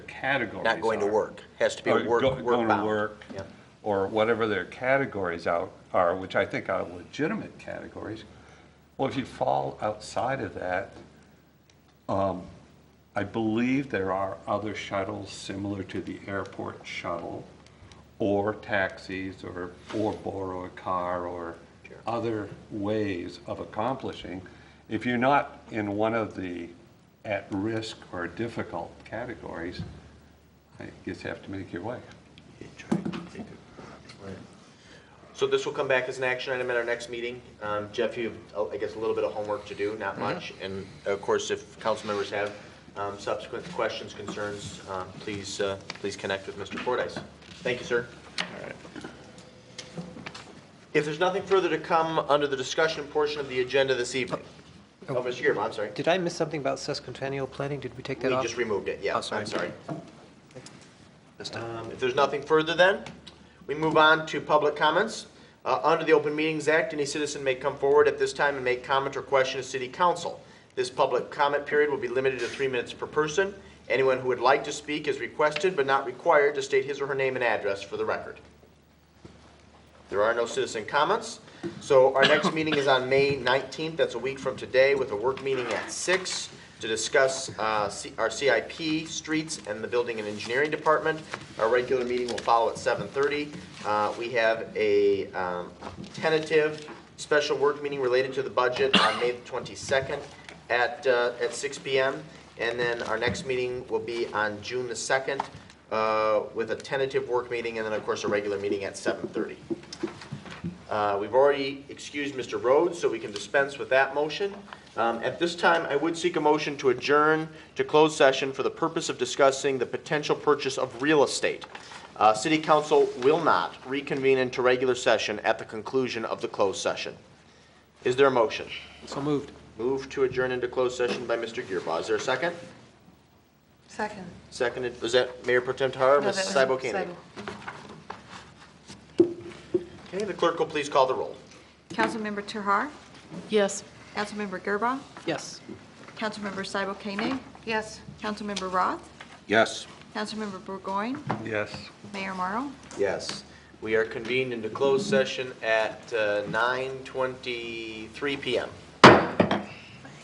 categories not going to are. work, has to be Or work, go- work Going to bound. work, Yeah. or whatever their categories out are, which I think are legitimate categories. Well, if you fall outside of that, um, I believe there are other shuttles similar to the airport shuttle, or taxis, or, or borrow a car, or Sure. other ways of accomplishing. If you're not in one of the at-risk or difficult categories, I guess you have to make your way. So this will come back as an action item at our next meeting. Um, Jeff, you have, I guess, a little bit of homework to do, not much. And of course, if council members have um, subsequent questions, concerns, um, please, uh, please connect with Mr. Fordyce. Thank you, sir. If there's nothing further to come under the discussion portion of the agenda this evening. Oh, Mr. Girma, I'm sorry. Did I miss something about sesquicentennial planning? Did we take We that off? just removed it, yeah, Oh, I'm sorry. sorry. Um, If there's nothing further then, we move on to public comments. Uh, Under the Open Meetings Act, any citizen may come forward at this time and make comment or question to city council. This public comment period will be limited to three minutes per person. Anyone who would like to speak is requested but not required to state his or her name and address for the record. There are no citizen comments. So our next meeting is on May 19th, that's a week from today, with a work meeting at six to discuss uh, C- our CIP, streets, and the Building and Engineering Department. Our regular meeting will follow at 7:30. Uh, We have a um, tentative special work meeting related to the budget on May 22nd at, uh, at six PM. And then our next meeting will be on June the 2nd uh, with a tentative work meeting and then, of course, a regular meeting at 7:30. Uh, We've already excused Mr. Rhodes, so we can dispense with that motion. Um, At this time, I would seek a motion to adjourn to closed session for the purpose of discussing the potential purchase of real estate. Uh, City Council will not reconvene into regular session at the conclusion of the closed session. Is there a motion? So moved. Move to adjourn into closed session by Mr. Gearba. Is there a second? Second. Seconded, was that Mayor Pro Tem Tahar or No, Mrs. that was Cybo Koenig? Seibel. Okay, the clerk will please call the roll. Councilmember Tahar, Yes. Councilmember Gerba, Yes. Councilmember Cybo Koenig. Yes. Councilmember Roth, Yes. Councilmember Burgoyne, Yes. Mayor Morrow. Yes. We are convened into closed session at uh, 9:23 PM.